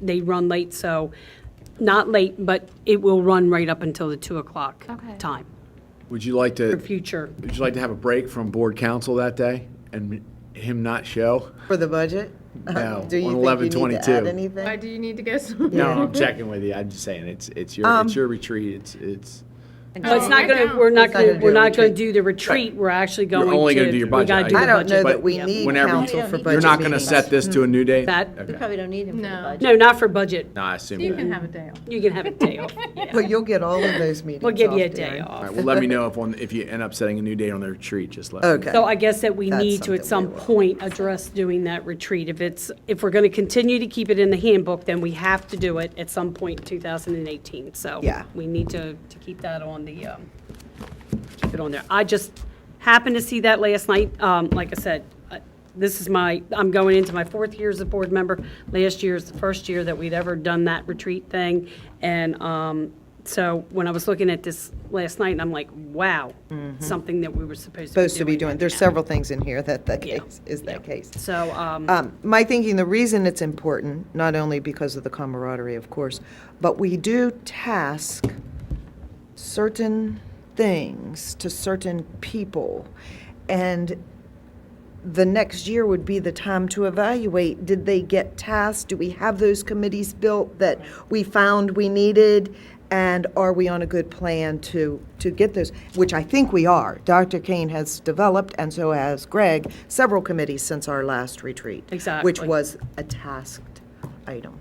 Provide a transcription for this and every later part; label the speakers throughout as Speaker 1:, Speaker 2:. Speaker 1: they run late, so not late, but it will run right up until the 2 o'clock
Speaker 2: Okay.
Speaker 1: time
Speaker 3: Would you like
Speaker 1: for
Speaker 3: to,
Speaker 1: future.
Speaker 3: would you like to have a break from board council that day and him not show?
Speaker 4: For the budget?
Speaker 3: No,
Speaker 4: Do you
Speaker 3: on
Speaker 4: think you need
Speaker 3: 11/22.
Speaker 4: to add
Speaker 2: Why
Speaker 4: anything?
Speaker 2: do you need to go
Speaker 3: No,
Speaker 2: somewhere?
Speaker 3: I'm checking with you. I'm just saying, it's, it's your,
Speaker 4: Um,
Speaker 3: it's your retreat. It's, it's,
Speaker 1: But it's not
Speaker 2: I
Speaker 1: going to,
Speaker 2: don't.
Speaker 1: we're not
Speaker 4: It's not
Speaker 1: going
Speaker 4: gonna
Speaker 1: to,
Speaker 4: do
Speaker 1: we're
Speaker 4: a
Speaker 1: not going to
Speaker 4: retreat.
Speaker 1: do the retreat. We're actually going to.
Speaker 3: You're only gonna do your
Speaker 1: we gotta
Speaker 3: budget
Speaker 1: do
Speaker 3: item.
Speaker 4: I
Speaker 1: the
Speaker 4: don't know
Speaker 1: budget.
Speaker 4: that we
Speaker 1: Yeah.
Speaker 4: need
Speaker 3: whenever you-
Speaker 4: council for budget
Speaker 3: you're not going to
Speaker 4: meetings.
Speaker 3: set this to a new date?
Speaker 1: That-
Speaker 3: Okay.
Speaker 5: We probably don't need him for the
Speaker 2: No.
Speaker 5: budget.
Speaker 1: No, not for budget.
Speaker 3: No, I assume
Speaker 2: You can
Speaker 3: that.
Speaker 2: have a day off.
Speaker 1: You can have a day off. Yeah.
Speaker 4: But you'll get all of those meetings
Speaker 1: We'll give you a
Speaker 4: off,
Speaker 1: day
Speaker 4: Darren.
Speaker 1: off.
Speaker 3: All right, well, let me know if, on if you end up setting a new date on the retreat, just let me know.
Speaker 4: Okay.
Speaker 1: So I guess that we
Speaker 4: That's
Speaker 1: need to, at some
Speaker 4: something we will.
Speaker 1: point, address doing that retreat. If it's, if we're going to continue to keep it in the handbook, then we have to do it at some point in 2018. So
Speaker 4: Yeah.
Speaker 1: we need to, to keep that on the, um, keep it on there. I just happened to see that last night. Um, Like I said, I- this is my, I'm going into my fourth year as a board member. Last year is the first year that we'd ever done that retreat thing. And um, so when I was looking at this last night, and I'm like, wow, something that we were supposed to be doing.
Speaker 4: Mm-hmm. Supposed to be doing, there's several things in here that that case, is that case.
Speaker 1: So, um,
Speaker 4: Um, My thinking, the reason it's important, not only because of the camaraderie, of course, but we do task certain things to certain people. And the next year would be the time to evaluate, did they get tasked? Do we have those committees built that we found we needed? And are we on a good plan to, to get those, which I think we are. Dr. Kane has developed, and so has Greg, several committees since our last retreat. Which
Speaker 1: Exactly.
Speaker 4: was a tasked item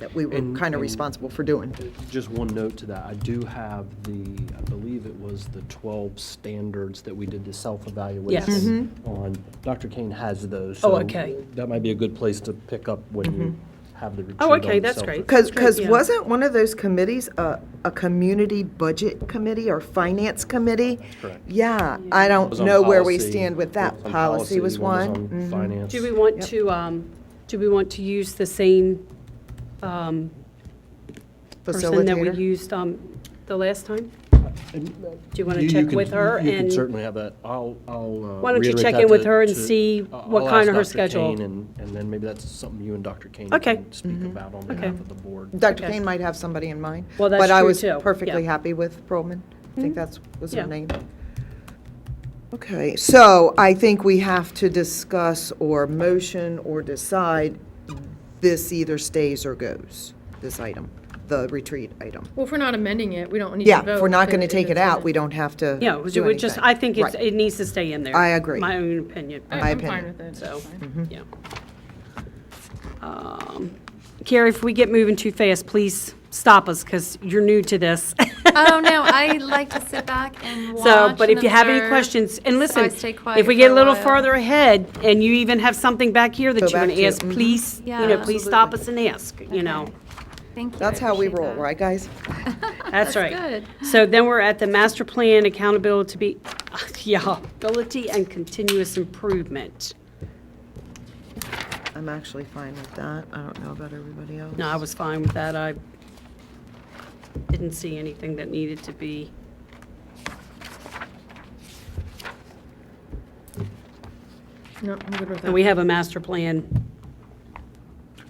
Speaker 4: that we were kind of responsible for doing.
Speaker 6: Just one note to that, I do have the, I believe it was the 12 standards that we did the
Speaker 1: Yes. Mm-hmm.
Speaker 6: self-evaluation on. Dr. Kane has those.
Speaker 1: Oh,
Speaker 6: so
Speaker 1: okay.
Speaker 6: That might be a good place to pick up when you have the retreat
Speaker 1: Oh, okay,
Speaker 6: on
Speaker 1: that's
Speaker 6: self-
Speaker 1: great.
Speaker 4: Because, because
Speaker 1: Yeah.
Speaker 4: wasn't one of those committees a, a community budget committee or finance committee?
Speaker 6: correct.
Speaker 4: Yeah, I
Speaker 6: It
Speaker 4: don't
Speaker 6: was on
Speaker 4: know where we
Speaker 6: policy,
Speaker 4: stand with
Speaker 6: one
Speaker 4: that.
Speaker 6: was on
Speaker 4: Policy was
Speaker 6: on
Speaker 4: one. Mm-hmm. Mm.
Speaker 6: Finance.
Speaker 1: do we want to, um, do we want to use the same um, person that we
Speaker 4: Facilitator.
Speaker 1: used um, the last time?
Speaker 6: And, uh,
Speaker 1: you wanna
Speaker 6: you
Speaker 1: check
Speaker 6: can-
Speaker 1: with her
Speaker 6: You can
Speaker 1: and-
Speaker 6: certainly have that, I'll, I'll. uh,
Speaker 1: Why don't you
Speaker 6: reiterate
Speaker 1: check
Speaker 6: that
Speaker 1: in with
Speaker 6: to-
Speaker 1: her and
Speaker 6: to-
Speaker 1: see
Speaker 6: I'll-
Speaker 1: what
Speaker 6: I'll
Speaker 1: kind of
Speaker 6: ask
Speaker 1: her
Speaker 6: Dr. Kane,
Speaker 1: schedule.
Speaker 6: And, and then maybe that's something you and Dr. Kane
Speaker 1: Okay.
Speaker 6: can
Speaker 4: Mm-hmm.
Speaker 6: speak about on behalf of the board.
Speaker 4: Dr.
Speaker 1: Okay.
Speaker 4: Kane might have somebody in mind.
Speaker 1: Well, that's
Speaker 4: But I
Speaker 1: true,
Speaker 4: was
Speaker 1: too. Yeah. Mm-hmm.
Speaker 4: perfectly happy with Pearlman. I think that's, was
Speaker 1: Yeah.
Speaker 4: her name. Okay, so I think we have to discuss or motion or decide this either stays or goes, this item, the retreat item.
Speaker 2: Well, if we're not amending it, we don't need to
Speaker 4: Yeah,
Speaker 2: vote.
Speaker 4: if we're not going to
Speaker 2: if
Speaker 4: take it
Speaker 2: it's in
Speaker 4: out, we don't have to
Speaker 1: Yeah, it was- it
Speaker 4: do
Speaker 1: would just,
Speaker 4: anything.
Speaker 1: I think it's,
Speaker 4: Right.
Speaker 1: it needs to stay in there.
Speaker 4: I agree. Mm-hmm.
Speaker 1: My own opinion.
Speaker 2: I-
Speaker 4: my
Speaker 2: I'm fine
Speaker 4: opinion.
Speaker 2: with it.
Speaker 1: So,
Speaker 2: it's fine.
Speaker 1: yeah. Um, Carrie, if we get moving too fast, please stop us, because you're new to this.
Speaker 7: Oh, no, I like to sit back and watch
Speaker 1: So, but
Speaker 7: and
Speaker 1: if you have any
Speaker 7: observe,
Speaker 1: questions, and
Speaker 7: so I
Speaker 1: listen,
Speaker 7: stay
Speaker 1: if
Speaker 7: quiet
Speaker 1: we get
Speaker 7: for
Speaker 1: a little
Speaker 7: while.
Speaker 1: farther ahead, and you even have something back here
Speaker 4: Go
Speaker 1: that you want
Speaker 4: back
Speaker 1: to
Speaker 4: to,
Speaker 1: ask,
Speaker 4: mhm.
Speaker 1: please, you know,
Speaker 7: Yeah.
Speaker 1: please stop us and ask, you know?
Speaker 7: Okay. Thank you. I
Speaker 4: That's how we
Speaker 7: appreciate
Speaker 4: roll,
Speaker 7: that.
Speaker 4: right, guys?
Speaker 1: That's right.
Speaker 7: good.
Speaker 1: So then we're at the master plan accountability, to be yeah, ability and continuous improvement.
Speaker 4: I'm actually fine with that. I don't know about everybody else.
Speaker 1: No, I was fine with that. I didn't see anything that needed to be.
Speaker 2: No, I'm good with
Speaker 1: And we
Speaker 2: that.
Speaker 1: have a master plan.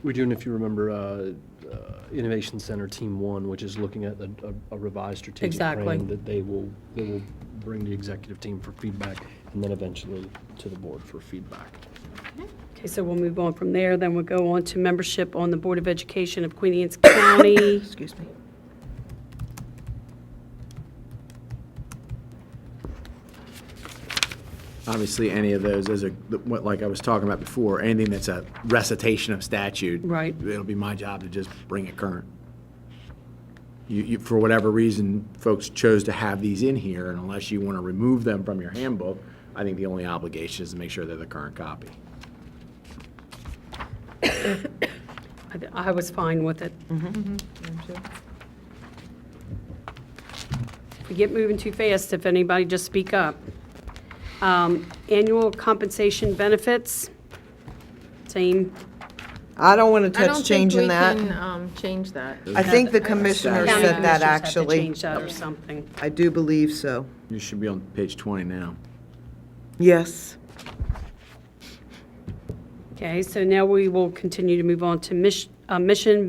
Speaker 6: We're doing, if you remember, uh, uh, Innovation Center Team One, which is looking at a a- a revised strategic
Speaker 1: Exactly.
Speaker 6: plan that they will, they will bring the executive team for feedback, and then eventually to the board for feedback.
Speaker 1: Okay, so we'll move on from there. Then we'll go on to membership on the Board of Education of Queen Anne's County.
Speaker 4: Excuse me.
Speaker 3: Obviously, any of those, as a, what- like I was talking about before, anything that's a recitation of statute.
Speaker 1: Right.
Speaker 3: It'll be my job to just bring it current. You, you, for whatever reason, folks chose to have these in here, and unless you want to remove them from your handbook, I think the only obligation is to make sure they're the current copy.
Speaker 1: I th- I was fine with it.
Speaker 4: Mm-hmm.
Speaker 1: We get moving too fast, if anybody, just speak up. Um, Annual compensation benefits, same,
Speaker 4: I don't want to
Speaker 2: I
Speaker 4: touch
Speaker 2: don't think
Speaker 4: changing
Speaker 2: we
Speaker 4: that.
Speaker 2: can, um, Change that.
Speaker 4: I think the
Speaker 1: Yeah,
Speaker 4: commissioner
Speaker 1: county
Speaker 4: said
Speaker 1: commissioners
Speaker 4: that,
Speaker 1: have to
Speaker 4: actually.
Speaker 1: change that or something.
Speaker 4: I do believe so.
Speaker 3: You should be on page 20 now.
Speaker 4: Yes.
Speaker 1: Okay, so now we will continue to move on to mis- uh, mission,